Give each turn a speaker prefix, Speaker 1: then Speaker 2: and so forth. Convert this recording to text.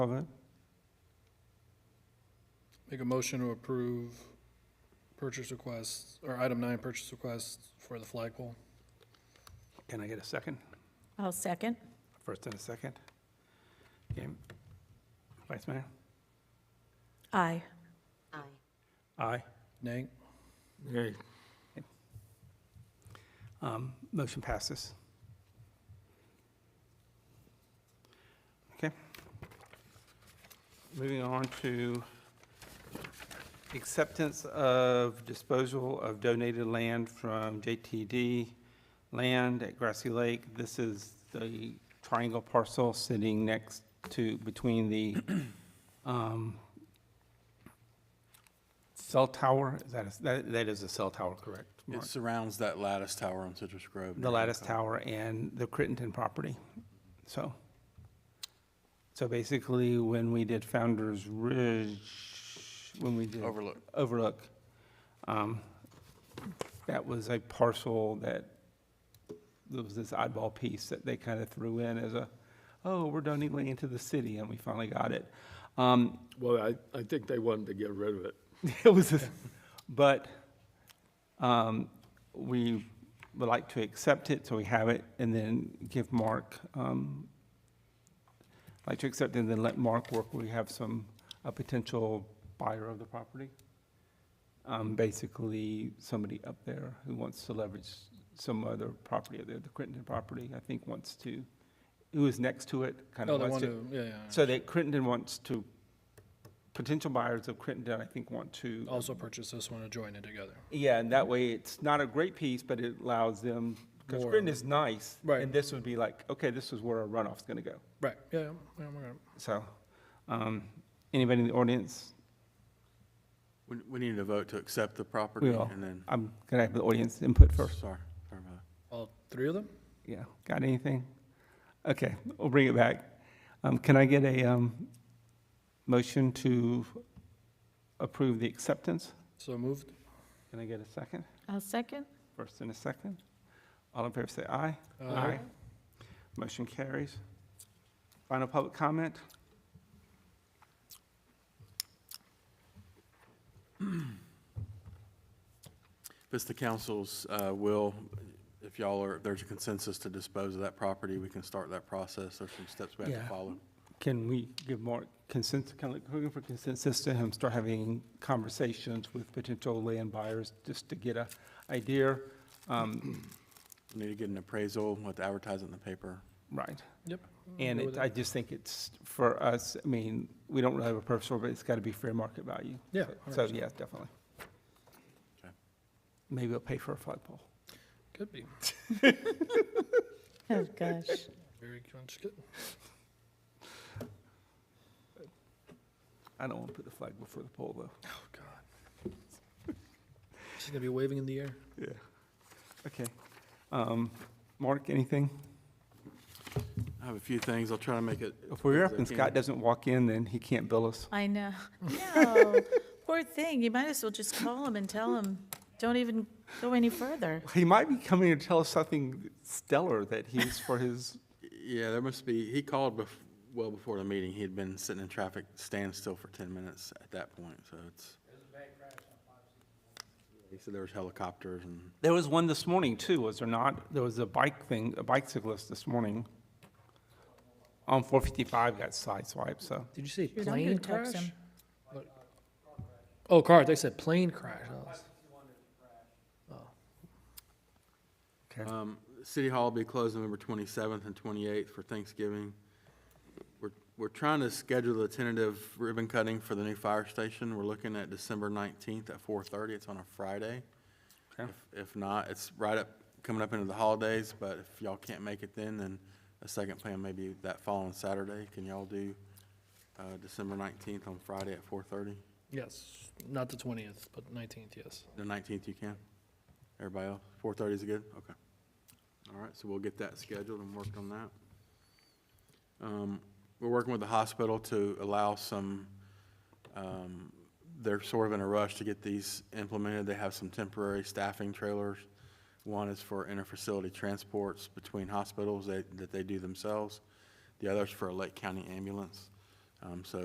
Speaker 1: Cover.
Speaker 2: Make a motion to approve purchase requests, or item nine, purchase requests for the flagpole.
Speaker 3: Can I get a second?
Speaker 4: I'll second.
Speaker 3: First and a second? Okay. Vice Mayor?
Speaker 4: Aye.
Speaker 5: Aye.
Speaker 3: Aye.
Speaker 2: Nay?
Speaker 1: Yay.
Speaker 3: Um, Motion passes. Okay. Moving on to acceptance of disposal of donated land from JTD Land at Grassy Lake. This is the triangle parcel sitting next to, between the um, cell tower. Is that, a- that- that is a cell tower, correct? Mark?
Speaker 6: It surrounds that lattice tower on Citrus Grove.
Speaker 3: the lattice tower and the Crittenton property. So, so basically, when we did Founder's Ridge, when we did
Speaker 6: Overlook.
Speaker 3: Overlook, um, that was a parcel that, there was this oddball piece that they kind of threw in as a, oh, we're donating land to the city, and we finally got it. Um,
Speaker 1: Well, I, I think they wanted to get rid of it.
Speaker 3: it was, a- but um, we would like to accept it, so we have it, and then give Mark, um, like to accept and then let Mark work, we have some, a potential buyer of the property. Um, Basically, somebody up there who wants to leverage some other property, the the Crittenden property, I think wants to, who is next to it, kind
Speaker 2: No,
Speaker 3: of
Speaker 2: they
Speaker 3: wants to.
Speaker 2: want to, yeah, yeah, yeah.
Speaker 3: So that Crittenden wants to, potential buyers of Crittenden, I think, want to.
Speaker 2: Also purchase this one and join it together.
Speaker 3: Yeah, and that way, it's not a great piece, but it allows them, because
Speaker 2: More.
Speaker 3: Crittenden is nice.
Speaker 2: Right.
Speaker 3: And this would be like, okay, this is where our runoff's gonna go.
Speaker 2: Right, yeah, yeah, yeah, we're gonna-
Speaker 3: So, um, anybody in the audience?
Speaker 6: We, we need to vote to accept the property
Speaker 3: We Uh, all,
Speaker 6: and then,
Speaker 3: I'm gonna have the audience input
Speaker 6: sorry,
Speaker 3: first.
Speaker 6: sorry about that.
Speaker 2: all three of them?
Speaker 3: Yeah, got anything? Okay, we'll bring it back. Um, can I get a, um, motion to approve the acceptance?
Speaker 2: So moved?
Speaker 3: Can I get a second?
Speaker 4: I'll second.
Speaker 3: First and a second? All in favor, say aye.
Speaker 2: Uh,
Speaker 3: Motion carries. Final public comment?
Speaker 6: If it's the council's uh, will, if y'all are, if there's a consensus to dispose of that property, we can start that process. There's some steps we have
Speaker 3: Yeah.
Speaker 6: to follow.
Speaker 3: Can we give Mark consensus, kind of looking for consensus to him, start having conversations with potential land buyers just to get a idea? Um,
Speaker 6: We Need to get an appraisal, we'll have to advertise it in the paper.
Speaker 3: Right.
Speaker 2: Yep.
Speaker 3: And
Speaker 2: Go
Speaker 3: it,
Speaker 2: with
Speaker 3: I just think it's, for us, I mean, we don't really have a purpose order, but it's got to be fair market value.
Speaker 2: Yeah,
Speaker 3: So,
Speaker 2: 100%.
Speaker 3: yeah, definitely.
Speaker 6: Okay.
Speaker 3: Maybe we'll pay for a flagpole.
Speaker 2: Could be,
Speaker 4: Oh, gosh.
Speaker 2: very much could.
Speaker 3: I don't want to put the flag before the pole, though.
Speaker 2: Oh, God. She's gonna be waving in the air.
Speaker 3: Yeah. Okay. Um, Mark, anything?
Speaker 6: I have a few things, I'll try to make it.
Speaker 3: If we're up
Speaker 6: as I
Speaker 3: and
Speaker 6: can.
Speaker 3: Scott doesn't walk in, then he can't bill us.
Speaker 4: I know. No. Poor thing. You might as well just call him and tell him, don't even go any further.
Speaker 3: He might be coming to tell us something stellar that he's for his,
Speaker 6: Yeah, there must be, he called bef, well before the meeting. He had been sitting in traffic standstill for ten minutes at that point, so it's. He said there was helicopters and.
Speaker 3: there was one this morning too, was there not? There was a bike thing, a bicyclist this morning on 455 got sideswiped, so.
Speaker 2: Did you say
Speaker 4: Dude, I'm gonna
Speaker 2: plane
Speaker 4: text
Speaker 2: crash?
Speaker 4: him.
Speaker 2: Look. Oh, car, they said plane crash. I was-
Speaker 6: Um, City Hall will be closed November 27th and 28th for Thanksgiving. We're, we're trying to schedule the tentative ribbon cutting for the new fire station. We're looking at December 19th at 4:30. It's on a Friday. If
Speaker 3: Okay.
Speaker 6: if not, it's right up, coming up into the holidays, but if y'all can't make it then, then a second plan may be that following Saturday. Can y'all do uh, December 19th on Friday at 4:30?
Speaker 2: Yes, not the twentieth, but nineteenth, yes.
Speaker 6: The 19th you can? Everybody else? 4:30 is good? Okay. All right, so we'll get that scheduled and worked on that. Um, We're working with the hospital to allow some, um, they're sort of in a rush to get these implemented. They have some temporary staffing trailers. One is for interfacility transports between hospitals that that they do themselves. The other's for a Lake County ambulance. Um, So